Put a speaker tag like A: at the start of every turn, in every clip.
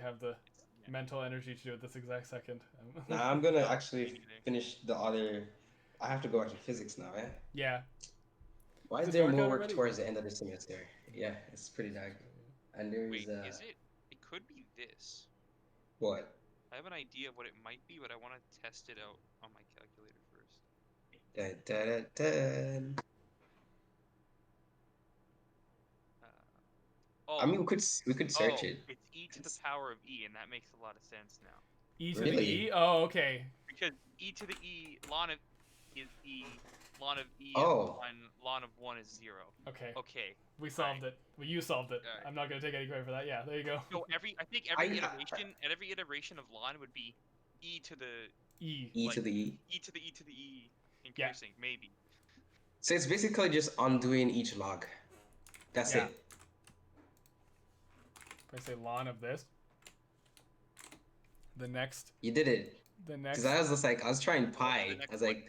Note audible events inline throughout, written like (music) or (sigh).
A: have the mental energy to do it this exact second. Um,
B: Now I'm gonna actually finish the other. I have to go back to physics now, eh?
A: yeah.
B: Why
A: Is
B: is
A: it
B: there
A: dark out
B: more work
A: already?
B: towards the end of the semester? Yeah, it's pretty dark. And there's
C: Wait,
B: uh,
C: is it? It could be this.
B: what?
C: I have an idea of what it might be, but I want to test it out on my calculator first.
B: Dun, dun, dun, dun.
C: Uh, oh,
B: I mean, we could s- we could search
C: oh,
B: it.
C: It's e to the
B: It's-
C: power of e, and that makes a lot of sense now.
A: E to the
B: Really?
A: E. Oh, okay.
C: Because e to the e ln of is e ln of e
B: Oh.
C: and ln, ln of one is zero.
A: Okay.
C: Okay.
A: We solved it. Well, you solved it.
C: Alright.
A: I'm not gonna take any credit for that. Yeah. There you go.
B: (laughs)
C: So every I think every
B: I- uh, I-
C: iteration at every iteration of ln would be e to the
A: E.
B: E to
C: like-
B: the E.
C: e to the e to the e
A: Yeah.
C: increasing maybe.
B: So it's basically just undoing each log. That's
A: Yeah.
B: it.
A: If I say lawn of this. The next.
B: You did it.
A: The next.
B: Because I was just like, I was trying
C: The
B: pi. I
C: next
B: was like,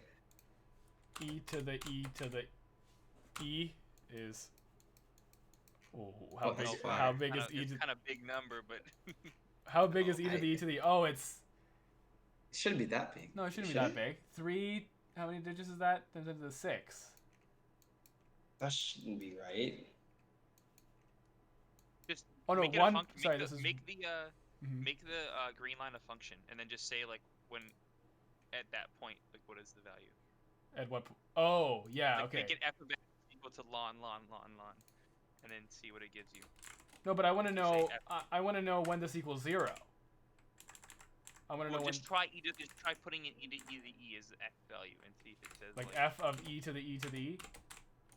A: E to the E to the E is. Oh, how
B: Oh,
A: big?
B: that's fine.
A: How big is
C: Kinda-
A: E?
C: it's
A: To,
C: kind of big number, but
A: how big is E
B: Oh,
A: to the
B: I-
A: E to the? Oh, it's
B: it shouldn't be that big.
A: no, it shouldn't be that
B: Should
A: big. Three. How many digits is that? Times into the six.
B: That shouldn't be right.
C: just
A: Oh, no,
C: make it
A: one-
C: a function.
A: sorry,
C: make
A: this
C: the,
A: is-
C: make the uh,
A: Mhm.
C: make the uh, green line a function, and then just say like when at that point like what is the value?
A: At what? po- Oh, yeah.
C: like,
A: Okay.
C: Make it f of x equal to ln ln ln ln, and then see what it gives you.
A: No, but I want to
C: Just say
A: know.
C: F.
A: I, I want to know when this equals zero. I want to
C: Well,
A: know when,
C: just try e to, just try putting in e to e to the e as the x value and see if it says
A: like f of e to the e to the e.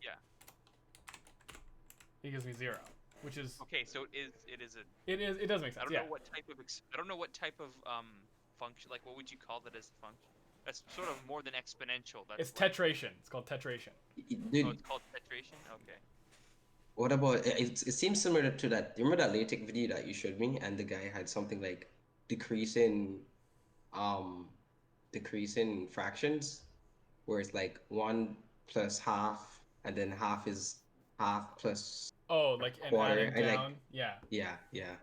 C: Yeah.
A: It gives me zero, which is
C: Okay, so it is it is a
A: it is it does make
C: I
A: sense.
C: don't
A: Yeah.
C: know what type of ex- I don't know what type of um function like what would you call that as a function? That's sort of more than exponential. That's
A: it's
C: like-
A: tetration. It's called tetration.
C: Oh, it's
B: Dude,
C: called tetration. Okay.
B: what about it, it? seems similar to that. You remember that LaTeX video that you showed me, and the guy had something like decreasing, um, decreasing fractions, where it's like one plus half, and then half is half plus.
A: Oh, like and
B: Quarter,
A: adding
B: I like-
A: down. yeah.
B: Yeah, yeah.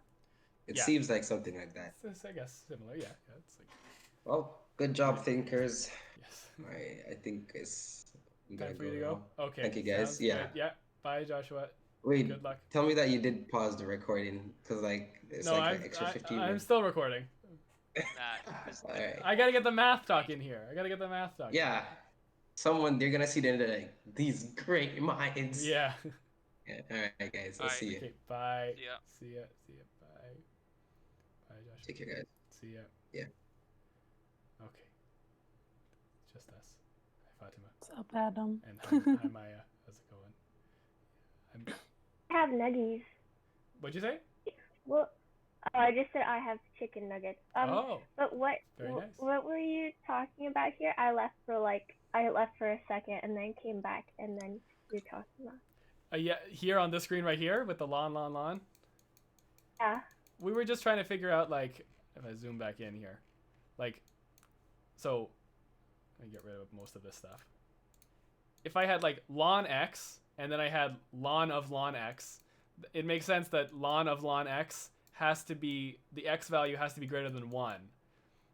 B: It
A: Yeah.
B: seems like something like that.
A: It's- it's, I guess similar. Yeah. yeah it's like
B: Well, good job, thinkers.
A: yes.
B: I I think it's. I'm
A: Time
B: gonna
A: for you to
B: now.
A: go. Okay.
B: Thank you, guys.
A: sounds
B: Yeah.
A: good. Yeah. Bye, Joshua.
B: Wait,
A: Good luck.
B: tell me that you did pause the recording because like it's
A: no,
B: like
A: I'm,
B: an extra
A: I-
B: 15
A: I'm
B: minutes. Ah,
A: still recording.
C: Nah, 'cause
B: All right.
A: I gotta get the math talk in here. I gotta get the math talk. in.
B: yeah. Someone they're gonna see the end of like these great minds.
A: Yeah.
B: Yeah, All right, guys. I'll
C: All right.
B: (laughs) see you.
A: okay. Bye.
C: See ya.
A: See ya. See ya. Bye. Bye, Joshua.
B: Take care, guys.
A: See ya.
B: Yeah.
A: Okay. Just us. Hi, Fatima.
D: What's up, Adam?
A: And hi, hi Maya. How's it going? I'm,
E: I have nuggies.
A: what'd you say?
E: Well, oh, I just said I have chicken nuggets. Um,
A: oh,
E: but what
A: very
E: wh-
A: nice.
E: what were you talking about here? I left for like I left for a second and then came back and then you're talking about.
A: Uh, yeah, here on this screen right here with the lawn, lawn, lawn.
E: Yeah.
A: We were just trying to figure out, like, if I zoom back in here, like, so let me get rid of most of this stuff. If I had like lawn X and then I had lawn of lawn X, th- it makes sense that lawn of lawn X has to be the X value has to be greater than one,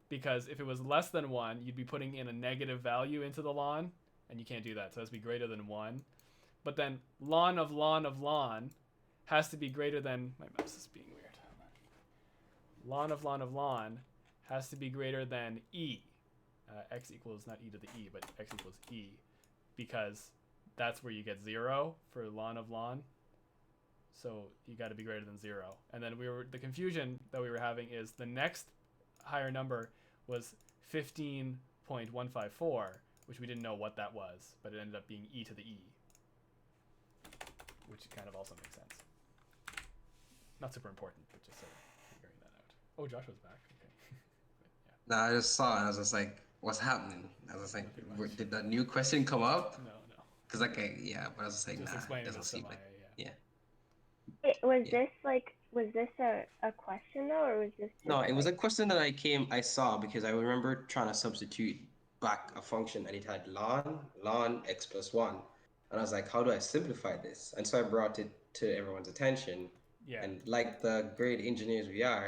A: because if it was less than one, you'd be putting in a negative value into the lawn, and you can't do that. So it has to be greater than one. But then lawn of lawn of lawn has to be greater than my mouse is being weird. Hold on. Lawn of lawn of lawn has to be greater than e. Uh, x equals not e to the e, but x equals e, because that's where you get zero for lawn of lawn. So you got to be greater than zero. And then we were the confusion that we were having is the next higher number was fifteen point one five four, which we didn't know what that was, but it ended up being e to the e which kind of also makes sense. Not super important, but just sort of figuring that out. Oh, Joshua's back. Okay. (laughs) yeah.
B: No, I just saw it. I was just like, what's happening? I was just like, where- did that new question come up?
A: No, no.
B: Because like, I, yeah, but I was just Oh. like,
A: Just
B: nah, it
A: explaining
B: doesn't
A: this to uh,
B: seem
A: Maya.
B: like.
A: Yeah.
B: Yeah.
E: It, was
B: Yeah.
E: this like was this a, a question though or was this just,
B: No, it was a
E: like,
B: question that I came, I saw because I remember trying to substitute back a function and it had ln, ln x plus one. And I was like, how do I simplify this? And so I brought it to everyone's attention.
A: Yeah.
B: And like the great engineers we are,